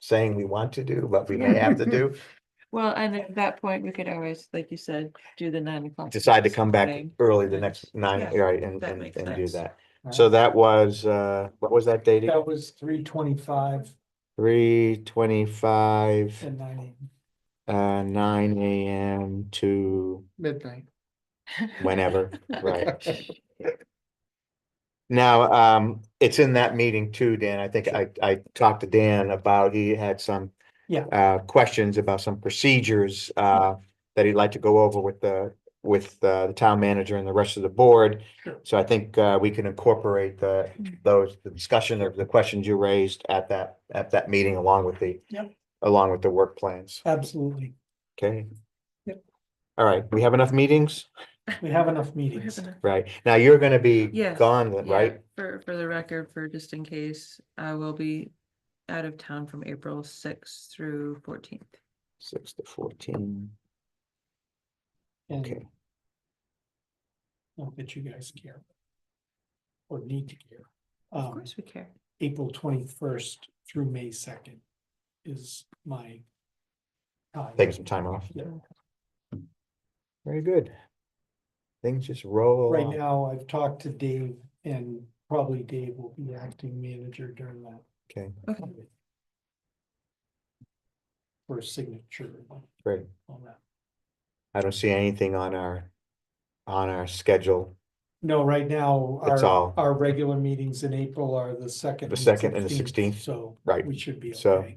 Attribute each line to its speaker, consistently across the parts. Speaker 1: saying we want to do, but we may have to do,
Speaker 2: Well, and at that point, we could always, like you said, do the nine o'clock.
Speaker 1: decide to come back
Speaker 2: thing.
Speaker 1: early the next nine,
Speaker 2: Yeah,
Speaker 1: right, and,
Speaker 2: that
Speaker 1: and,
Speaker 2: makes
Speaker 1: and do
Speaker 2: sense.
Speaker 1: that. So that was, uh, what was that date?
Speaker 3: That was three twenty-five
Speaker 1: Three twenty-five,
Speaker 3: and ninety,
Speaker 1: uh, nine AM to
Speaker 3: midnight.
Speaker 1: whenever, right? Now, um, it's in that meeting too, Dan. I think I, I talked to Dan about, he had some.
Speaker 3: Yeah.
Speaker 1: Uh, questions about some procedures, uh, that he'd like to go over with the, with uh, the town manager and the rest of the board.
Speaker 3: Sure. Mm.
Speaker 1: So I think, uh, we can incorporate the, those, the discussion of the questions you raised at that, at that meeting along with the.
Speaker 3: Yep.
Speaker 1: Along with the work plans,
Speaker 3: Absolutely.
Speaker 1: okay?
Speaker 3: Yep.
Speaker 1: All right, we have enough meetings,
Speaker 3: We have enough
Speaker 2: We have
Speaker 3: meetings.
Speaker 2: enough-
Speaker 1: right? Now you're gonna be
Speaker 2: Yes,
Speaker 1: gone,
Speaker 2: yeah,
Speaker 1: right?
Speaker 2: For, for the record, for just in case, I will be out of town from April sixth through fourteenth.
Speaker 1: Six to fourteen.
Speaker 3: and
Speaker 1: Okay.
Speaker 3: Not that you guys care. Or need to care.
Speaker 2: Of
Speaker 3: Um,
Speaker 2: course we care.
Speaker 3: April twenty-first through May second is my. time.
Speaker 1: taking some time off.
Speaker 3: Yeah.
Speaker 1: Very good. Things just roll
Speaker 3: Right
Speaker 1: along.
Speaker 3: now, I've talked to Dave and probably Dave will be acting manager during that.
Speaker 1: Okay,
Speaker 2: Okay,
Speaker 3: For signature and
Speaker 1: great.
Speaker 3: all that.
Speaker 1: I don't see anything on our, on our schedule.
Speaker 3: No, right now,
Speaker 1: That's all.
Speaker 3: our, our regular meetings in April are the second.
Speaker 1: The second and the 16th,
Speaker 3: So.
Speaker 1: right,
Speaker 3: We should be
Speaker 1: so-
Speaker 3: okay.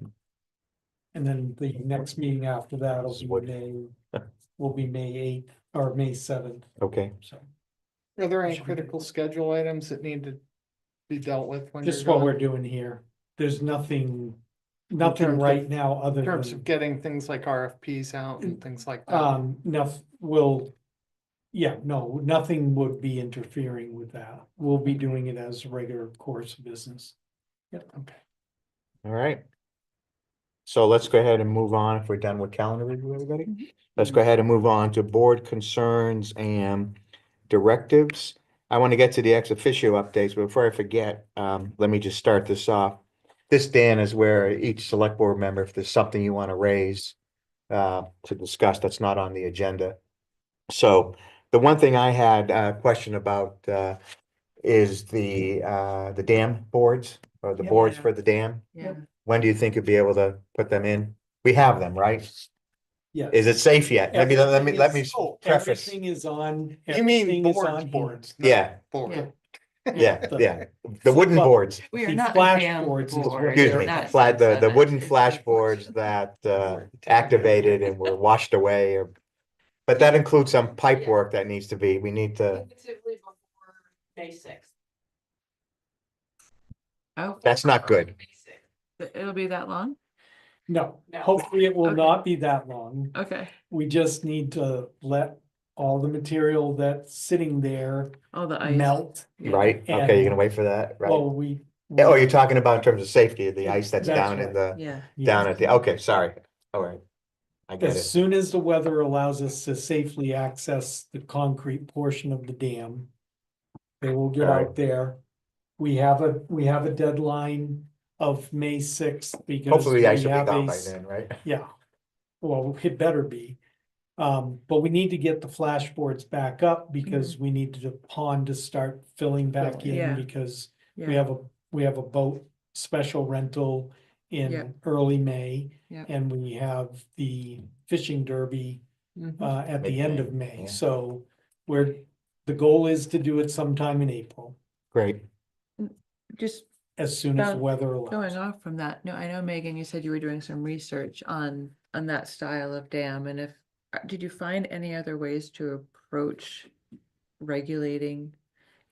Speaker 3: And then the next meeting after that will
Speaker 1: This is what-
Speaker 3: be May, will be May eighth or May seventh,
Speaker 1: Okay,
Speaker 3: so.
Speaker 4: Are there any
Speaker 3: Should we do-
Speaker 4: critical schedule items that need to be dealt with? when
Speaker 3: Just
Speaker 4: you're
Speaker 3: what
Speaker 4: gone?
Speaker 3: we're doing here. There's nothing, nothing
Speaker 4: terms
Speaker 3: right
Speaker 4: of-
Speaker 3: now other
Speaker 4: In terms of
Speaker 3: than,
Speaker 4: getting things like RFPs out
Speaker 3: Mm.
Speaker 4: and things like that.
Speaker 3: um, enough will. Yeah, no, nothing would be interfering with that. We'll be doing it as a regular course of business.
Speaker 4: Okay.
Speaker 1: all right. So let's go ahead and move on. If we're done with calendar review, everybody,
Speaker 2: Mhm.
Speaker 1: let's go ahead and move on to board concerns and directives. I want to get to the ex officio updates, but before I forget, um, let me just start this off. This, Dan, is where each select board member, if there's something you want to raise uh, to discuss that's not on the agenda. So the one thing I had a question about uh, is the, uh, the dam boards or the boards
Speaker 2: Yeah.
Speaker 1: for the dam.
Speaker 2: yeah.
Speaker 1: When do you think you'd be able to put them in? We have them, right?
Speaker 3: Yeah.
Speaker 1: Is it safe yet? Let me, let me,
Speaker 3: Everything
Speaker 1: let me
Speaker 3: is- oh,
Speaker 1: preface.
Speaker 3: Everything is on.
Speaker 4: You
Speaker 3: everything
Speaker 4: mean
Speaker 3: is
Speaker 4: boards,
Speaker 3: on
Speaker 4: boards. not
Speaker 1: Yeah,
Speaker 4: Board.
Speaker 1: yeah,
Speaker 3: The-
Speaker 1: yeah. The wooden
Speaker 3: Well,
Speaker 1: boards,
Speaker 2: We are
Speaker 3: The
Speaker 2: not. a
Speaker 3: flash
Speaker 2: damn
Speaker 3: boards is what
Speaker 2: board.
Speaker 3: they're
Speaker 1: excuse
Speaker 2: We're
Speaker 1: me,
Speaker 2: not a
Speaker 1: fla- the, the
Speaker 2: subset.
Speaker 1: wooden flash boards that, uh, activated and were washed away or. But that includes some pipe
Speaker 5: Yeah.
Speaker 1: work that needs to be, we need to,
Speaker 5: Tentatively before May sixth.
Speaker 2: Oh,
Speaker 1: that's not good.
Speaker 5: May 6th.
Speaker 2: it- it'll be that long?
Speaker 3: No,
Speaker 5: No.
Speaker 3: hopefully it will
Speaker 2: Okay.
Speaker 3: not be that long.
Speaker 2: Okay,
Speaker 3: We just need to let all the material that's sitting there
Speaker 2: all the ice.
Speaker 3: melt.
Speaker 2: yeah.
Speaker 1: Right, okay, you're gonna wait for that, right?
Speaker 3: Well, we.
Speaker 1: Oh, you're talking about in terms of safety, the ice that's
Speaker 3: That's
Speaker 1: down in
Speaker 3: right.
Speaker 1: the,
Speaker 2: Yeah,
Speaker 3: Yeah.
Speaker 1: down at the, okay, sorry, all right. I get
Speaker 3: As
Speaker 1: it,
Speaker 3: soon as the weather allows us to safely access the concrete portion of the dam, they will get
Speaker 1: Alright.
Speaker 3: out there. We have a, we have a deadline of May sixth because.
Speaker 1: hopefully the ice
Speaker 3: we
Speaker 1: will be
Speaker 3: have
Speaker 1: gone
Speaker 3: a
Speaker 1: by
Speaker 3: s-
Speaker 1: then, right?
Speaker 3: Yeah, well, it better be. Um, but we need to get the flash boards back up because we need the pond to start filling back
Speaker 4: Filling.
Speaker 3: in
Speaker 2: Mm-hmm. Yeah.
Speaker 3: because we
Speaker 2: yeah,
Speaker 3: have a, we have a boat special rental
Speaker 2: Yep.
Speaker 3: in early May.
Speaker 2: Yep.
Speaker 3: And we have the fishing derby
Speaker 2: Mm-hmm.
Speaker 3: uh at the end of
Speaker 1: yeah.
Speaker 3: May, so we're, the goal is to do it sometime in April,
Speaker 1: Great,
Speaker 2: just
Speaker 3: as soon as the
Speaker 2: Well,
Speaker 3: weather
Speaker 2: Going
Speaker 3: allows.
Speaker 2: off from that, no, I know Megan, you said you were doing some research on, on that style of dam and if, uh, did you find any other ways to approach regulating?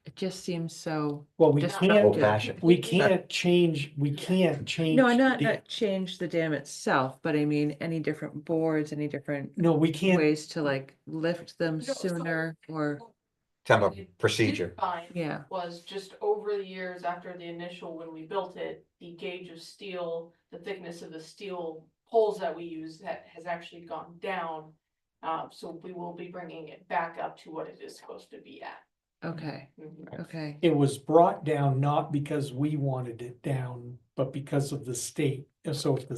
Speaker 2: It just seems so,
Speaker 3: Well, we
Speaker 2: Just
Speaker 3: can't,
Speaker 1: old
Speaker 2: Yeah.
Speaker 1: fashioned,
Speaker 3: we can't change, we can't change.
Speaker 2: no, not,
Speaker 3: the-
Speaker 2: not change the dam itself, but I mean, any different boards, any different
Speaker 3: No, we can't,
Speaker 2: ways to like lift them
Speaker 5: No, so-
Speaker 2: sooner or,
Speaker 1: type of
Speaker 5: Did
Speaker 1: procedure,
Speaker 5: Fine.
Speaker 2: yeah,
Speaker 5: Was just over the years after the initial, when we built it, the gauge of steel, the thickness of the steel poles that we use that has actually gone down. Uh, so we will be bringing it back up to what it is supposed to be at.
Speaker 2: okay,
Speaker 3: Mm-hmm.
Speaker 5: Mhm.
Speaker 2: okay,
Speaker 3: it was brought down not because we wanted it down, but because of the state, so if the